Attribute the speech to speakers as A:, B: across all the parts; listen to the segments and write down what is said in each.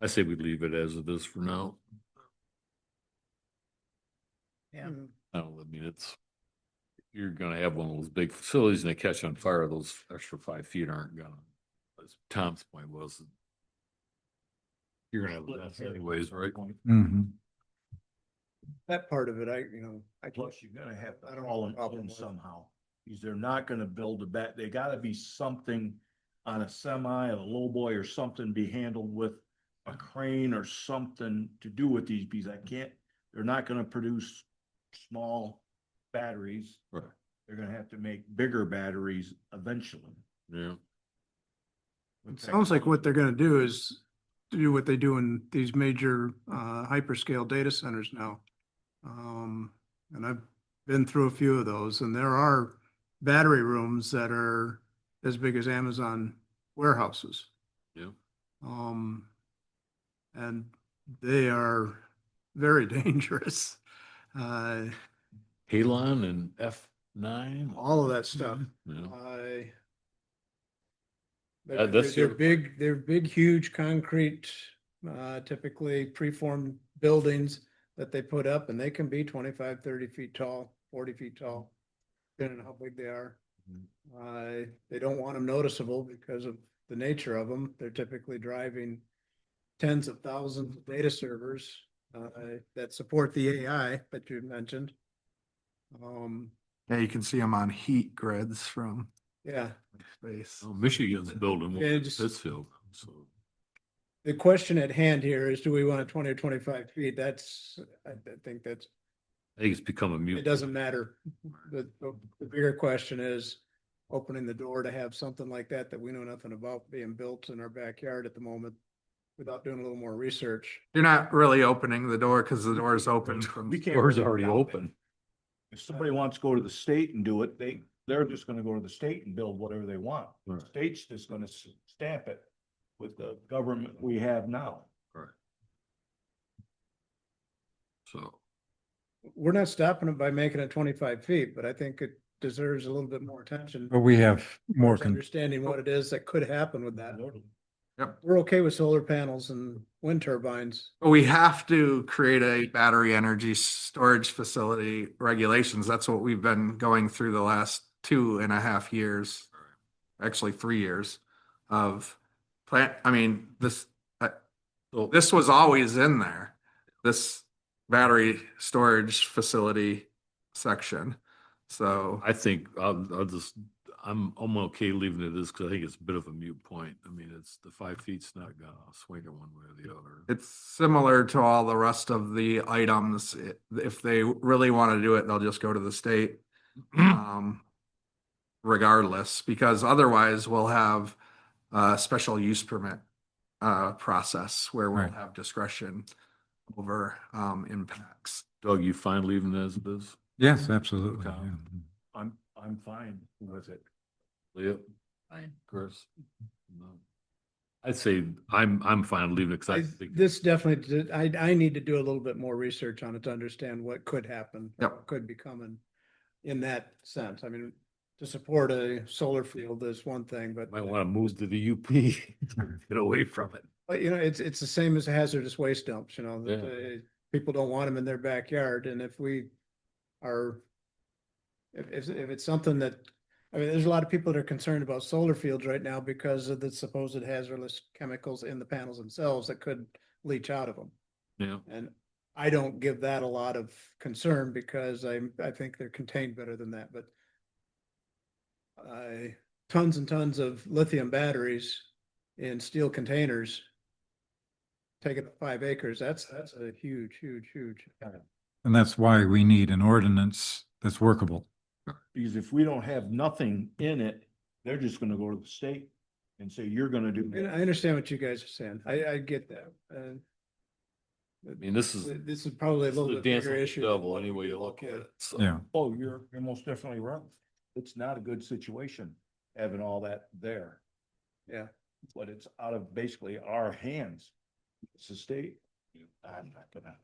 A: I say we leave it as it is for now.
B: Yeah.
A: I don't, I mean, it's, you're gonna have one of those big facilities and they catch on fire, those extra five feet aren't gonna, as Tom's point was. You're gonna have less anyways, right?
C: Mm-hmm.
B: That part of it, I, you know, I. can't-
D: Plus, you're gonna have
B: I
D: to
B: don't
D: haul
B: have a problem
D: them in
B: with it.
D: somehow. Because they're not gonna build a bat, they gotta be something on a semi, a lowboy or something be handled with a crane or something to do with these bees. I can't, they're not gonna produce small batteries.
A: Right.
D: They're gonna have to make bigger batteries eventually.
A: Yeah,
D: with
C: It sounds like what
D: technology.
C: they're gonna do is do what they do in these major uh hyperscale data centers now. Um, and I've been through a few of those and there are battery rooms that are as big as Amazon warehouses.
A: Yeah.
C: Um, and they are very dangerous. Uh,
A: Halon and F nine.
C: all of that stuff.
A: Yeah,
C: I.
A: Uh,
C: They're,
A: that's
C: they're
A: your-
C: big, they're big, huge concrete, uh, typically preformed buildings that they put up and they can be 25, 30 feet tall, forty feet tall, depending on how big they are.
A: Mm-hmm.
C: Uh, they don't want them noticeable because of the nature of them. They're typically driving tens of thousands of data servers, uh, that support the AI that you mentioned. Um,
E: Yeah, you can see them on heat grids from
C: yeah.
E: space.
A: Oh, Michigan's building one
C: Yeah,
A: in
C: just-
A: Pittsfield, so.
C: The question at hand here is, do we want twenty or twenty-five feet? That's, I I think that's,
A: I think it's become a mute.
C: it doesn't matter. The, the the bigger question is opening the door to have something like that that we know nothing about being built in our backyard at the moment without doing a little more research.
E: You're not really opening the door because the door is open from.
D: We can't
A: Door's
D: really
A: already
D: stop it.
A: open.
D: If somebody wants to go to the state and do it, they, they're just gonna go to the state and build whatever they want. The
A: Right.
D: State's just gonna s- stamp it with the government we have now.
A: So,
C: We're not stopping it by making it twenty-five feet, but I think it deserves a little bit more attention.
F: But we have more, con-
C: Understanding what it is that could happen with that.
E: Yep.
C: We're okay with solar panels and wind turbines.
E: But we have to create a battery energy storage facility regulations. That's what we've been going through the last two and a half years. Actually, three years of plant, I mean, this,
A: so
E: this was always in there. This battery storage facility section. So
A: I think I'll, I'll just, I'm, I'm okay leaving it as, cause I think it's a bit of a mute point. I mean, it's, the five feet's not gonna swing it one way or the other.
E: It's similar to all the rest of the items. I- If they really want to do it, they'll just go to the state. um, Regardless, because otherwise we'll have a special use permit uh, process where we'll
F: Right.
E: have discretion over um, impacts.
A: Doug, you fine leaving it as it is?
F: yes, absolutely.
A: Okay.
F: yeah.
D: I'm, I'm fine with it.
A: Yep. Fine. Chris? No. I'd say I'm, I'm fine leaving it, cause I
C: I,
A: think.
C: this definitely, did- I, I need to do a little bit more research on it to understand what could happen. or
E: Yep.
C: what Could be coming in that sense. I mean, to support a solar field is one thing, but,
A: Might wanna move to the UP, get away from it.
C: but you know, it's, it's the same as hazardous waste dumps, you know, that,
A: Yeah.
C: uh, people don't want them in their backyard and if we are if, if, if it's something that, I mean, there's a lot of people that are concerned about solar fields right now because of the supposed hazardous chemicals in the panels themselves that could leach out of them.
A: Yeah,
C: And I don't give that a lot of concern because I, I think they're contained better than that, but I, tons and tons of lithium batteries in steel containers taking up five acres, that's, that's a huge, huge, huge.
F: And that's why we need an ordinance that's workable.
D: Because if we don't have nothing in it, they're just gonna go to the state and say, you're gonna do.
C: And
D: that."
C: I understand what you guys are saying. I, I get that. And
A: I mean, this is.
C: this is probably a
A: Hmm. this is
C: little bit
A: dance
C: bigger
A: with the
C: issue.
A: Devil, any way you look at it, so.
F: Yeah.
D: Oh, you're, you're most definitely right. It's not a good situation having all that there.
C: Yeah.
D: But it's out of basically our hands. It's the state. I'm not gonna.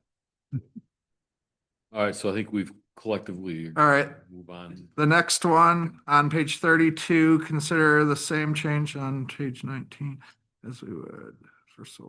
A: All right, so I think we've collectively.
E: All right.
A: Move on.
E: The next one on page thirty-two, consider the same change on page nineteen as we would for solar.